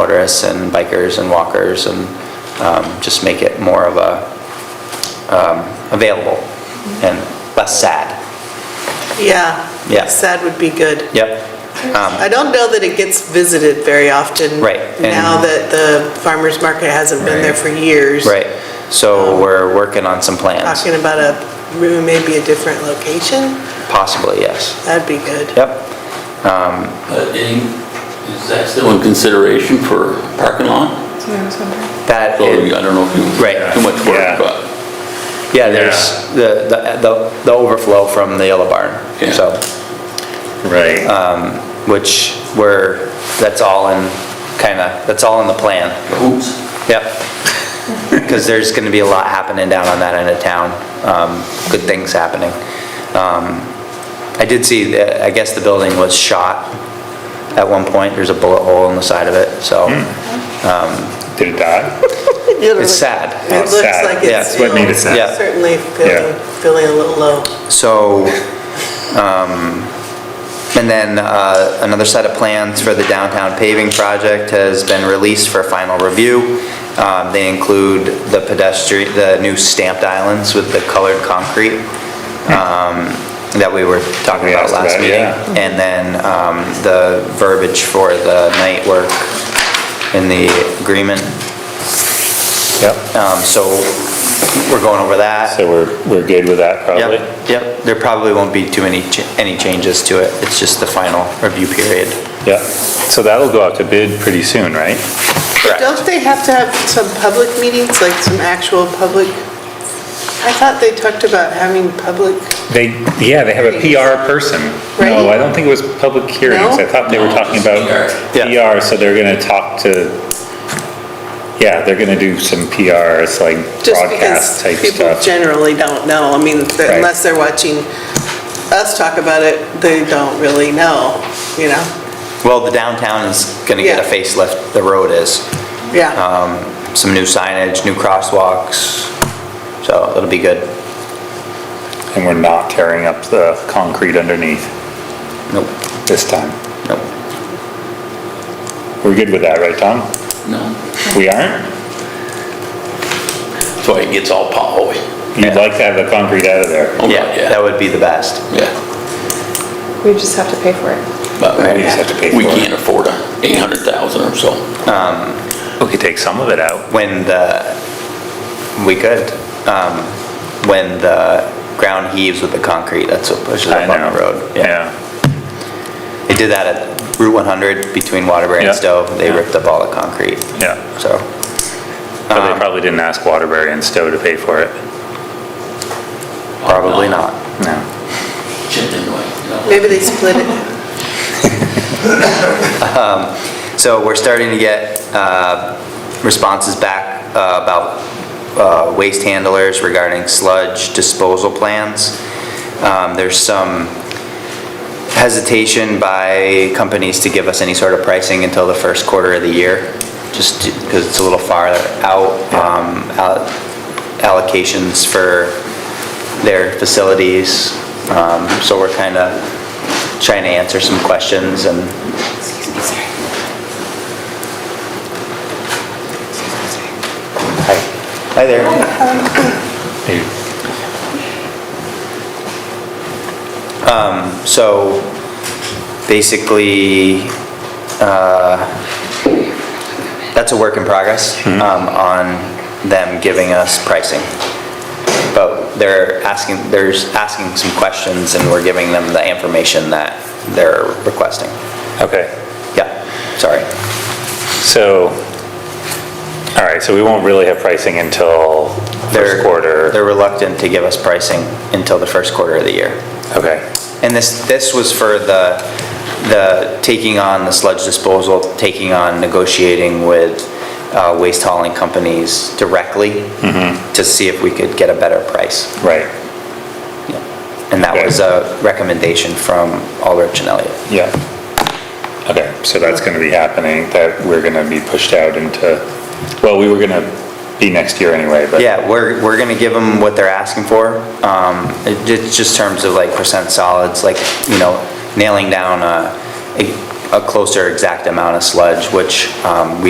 motorists and bikers and walkers and um, just make it more of a, um, available and less sad. Yeah. Yeah. Sad would be good. Yep, I don't know that it gets visited very often. Right, and- Now that the farmer's market hasn't been there Right. for years. right. So we're working on some plans, Talking about a, maybe a different location, possibly, yes. that'd be good. Yep, But Uh, any- is that still in consideration for parking lot? that, So is- I don't know if you, Right. too much Yeah. work, but. yeah, there's the, the- the the overflow from the yellow barn. Yeah. So, Right, which we're, that's all in, kind of, that's all in the plan. Oops. Yep. Because there's going to be a lot happening down on that end of town, um, good things happening. Um, I did see, that- I guess the building was shot at one point, there's a bullet hole in the side of it, so did it die? it's sad. It Oh, looks sad. like Yeah, it's, it's you what know, made it sad. Yeah. certainly feeling, feeling a little low. So, um, and then uh, another set of plans for the downtown paving project has been released for final review. Um, They include the pedestrian, the new stamped islands with the colored concrete um, that we were talking We about Hmm. asked last about, meeting. yeah. And then um, the verbiage for the night work in the agreement. Yep. Um, So we're going over that. So we're, we're good with that, probably? Yep, yep, there probably won't be too many, ch- any changes to it, it's just the final review period. Yeah. So that'll go out to bid pretty soon, right? Don't they have to have some public meetings, like some actual public? I thought they talked about having public, They, yeah, they have a PR person. No, Right. I don't think it was public hearings. No? I thought they were talking about Yeah. PR, so they're gonna talk to, yeah, they're gonna do some PRs, like just because broadcast type people stuff. generally don't know. I mean, Right. unless they're watching us talk about it, they don't really know, you know? Well, the downtown is gonna get a Yeah. facelift, the road is, Yeah. um, some new signage, new crosswalks, so it'll be good. And we're not tearing up the concrete underneath Nope, this time. nope, We're good with that, right, Tom? No. We aren't? That's why it gets all potholy. You'd like to have the concrete out of there. Oh, yeah, that would be the best. Yeah. We just have to pay for it. But We just have to pay we for it. can't afford a 800,000 or so. We could take some of it out. When the, we could, um, when the ground heaves with the concrete, that's what pushes I up on know. the road. Yeah. They did that at Route 100 between Waterbury Yeah. and Stowe, they Yeah. ripped up all the concrete. Yeah. So, But Um, they probably didn't ask Waterbury and Stowe to pay for it. probably not. No. Chipped into it, you know. Maybe they split it. So we're starting to get uh, responses back uh, about uh, waste handlers regarding sludge disposal plans. Um, There's some hesitation by companies to give us any sort of pricing until the first quarter of the year, just because it's a little farther out. Um, al- Allocations for their facilities, Um, so we're kind of trying to answer some questions and Hi. Hi there. Um, so basically, uh, that's a work in progress, um, on them giving us pricing. But they're asking, they're asking some questions and we're giving them the information that they're requesting. Okay. Yeah, sorry. So, all right, so we won't really have pricing until They're- first quarter. They're reluctant to give us pricing until the first quarter of the year. Okay, And this, this was for the, the taking on the sludge disposal, taking on negotiating with uh, waste hauling companies directly to see if we could get a better price. right, And that was a recommendation from Aldrich and Elliott. yeah. Okay, so that's gonna be happening, that we're gonna be pushed out into, well, we were gonna be next year anyway, but. Yeah, we're, we're gonna give them what they're asking for. Um, it- It's just terms of like percent solids, like, you know, nailing down a, a a closer exact amount of sludge, which um, we